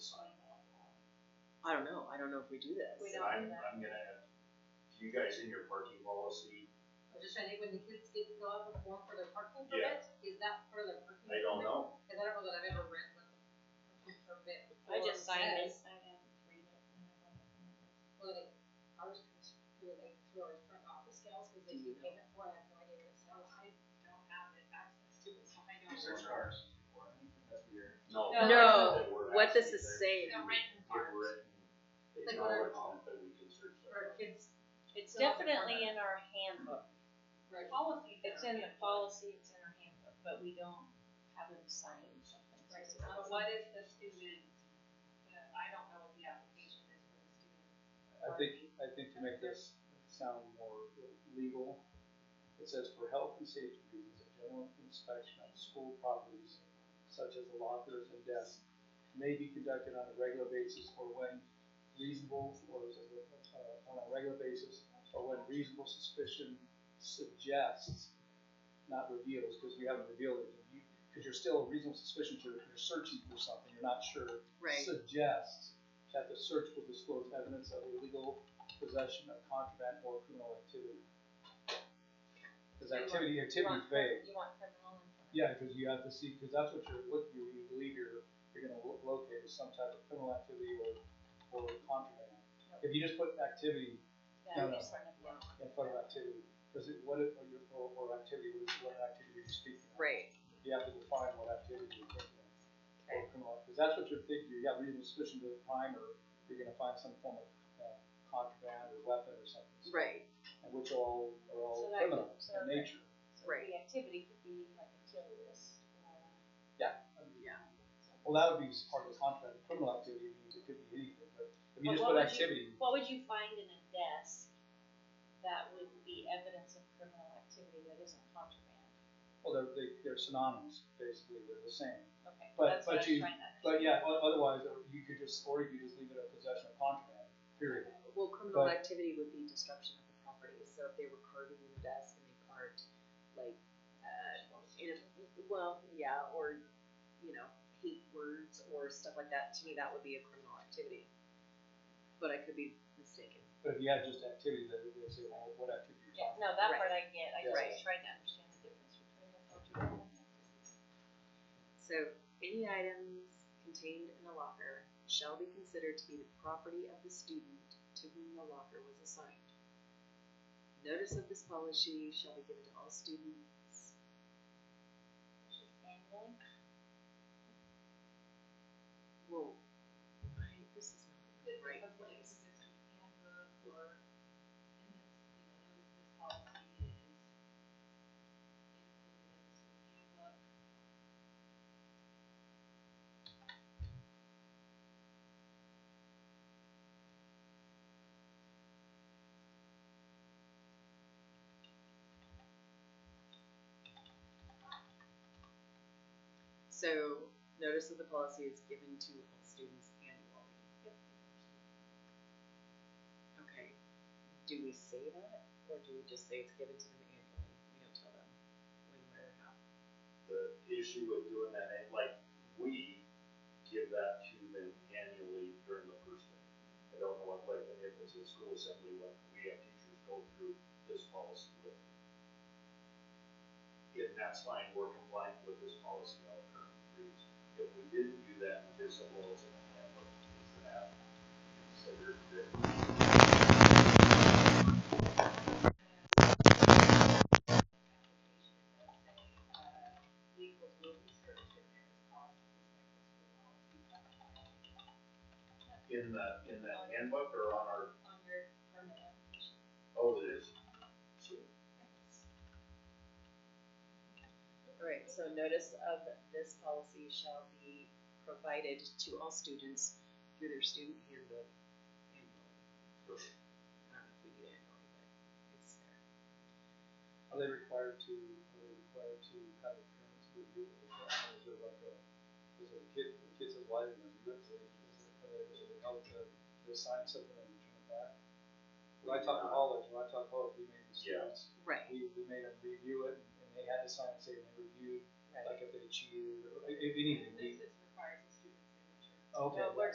I don't know, I don't know if we do this. We don't. I'm, I'm gonna, you guys in your parking policy, I'm just trying to think, when the kids did fill out the form for their parking Yeah. permit, is that for their parking? I don't know. Cause I don't know that I've ever read the parking permit. I just form signed it. says. Well, they, I was doing like through our front office gals, cause they do payment for it, I have no idea what it sounds like. I don't have it access to it, so I don't. Is know. there cars? That's weird. No. No. they were What this actually is there. saying, The written If part, we're in- if Like y'all what are are- confident we can search that. for kids, It's definitely in our handbook. for Policy. It's in the policy, it's in our handbook, but we don't have them sign something. Right, so now what if the student, uh, I don't know what the application is for the student. I think, I think to make this sound more legal, it says for health and safety reasons, a general inspection of school properties such as the lockers and desks may be conducted on a regular basis or when reasonable, or is it, uh, on a regular basis, or when reasonable suspicion suggests, not reveals, because we haven't revealed it, because you're still a reasonable suspicion, you're, you're searching for something, you're not sure right, suggests that the search will disclose evidence of illegal possession of contraband or criminal activity. Because activity, activity is vague. You want criminal information. Yeah, because you have to see, because that's what you're looking, you you believe you're, you're gonna lo- locate is some type of criminal activity or, or contraband. If you just put activity Yeah, we No, no. just want to know. in front of activity, because it, what, it- or your, or, or activity, what what activity you're speaking of. right, You have to define what activity you're Oh, thinking of. Or criminal, because that's what you're thinking, you have reasonable suspicion to a crime, or you're gonna find some form of uh, contraband or weapon or something. So- right, And which all, are all So that- criminal so in that- nature. So the activity could be like a uh, kill list or. I mean, yeah, Well, that would be part of the contraband, criminal activity, means it could be anything, but if you But just what would put you- activity, What would you find in a desk that would be evidence of criminal activity that isn't contraband? well, they're, they- they're synonymous, basically, they're the same. Okay, But- that's what I'm but you- trying to. But yeah, o- otherwise, or you could just, or you could just leave it a possession of contraband, period. well, criminal But- activity would be destruction of the property, so if they were carving the desk and they carved, like, uh, in a, well, yeah, or, you know, hate words or stuff like that, to me, that would be a criminal activity. But I could be mistaken. But if you had just activity, they would say, well, what activity you're Yeah, talking about? no, that Right. part I get, I Right. just tried to understand the difference between the contraband and activity. So, any items contained in a locker shall be considered to be the property of the student to whom the locker was assigned. Notice of this policy shall be given to all students. Which is annually. Whoa, I- this is not the right place. So, notice of the policy is given to all students annually. Okay, do we say that, or do we just say it's given to them annually? We don't tell them when, where, or how. The issue with doing that, and like, we give that to them annually during the first day. I don't know what, like, if it's a school assembly, what we have teachers go through this policy with. If that's fine, we're compliant with this policy on the current grades. If we didn't do that, we did something else in the handbook, is that considered that? In the, in that handbook or on our, On your permit application. oh, it is. Alright, so notice of this policy shall be provided to all students through their student handbook annually. I don't know if we need annually, but it's there. Are they required to, are they required to have the parents review it, or is there like a, is there a kid, the kid says, why didn't I do it, is it, is it, are they, is it held to, to assign something and return it back? When I taught in college, when I taught college, we made the students, Right, we, we made them review it, and they had to sign, say they reviewed, right. like if they cheated, or if anything, we, This is requires a student signature. okay. Well, we're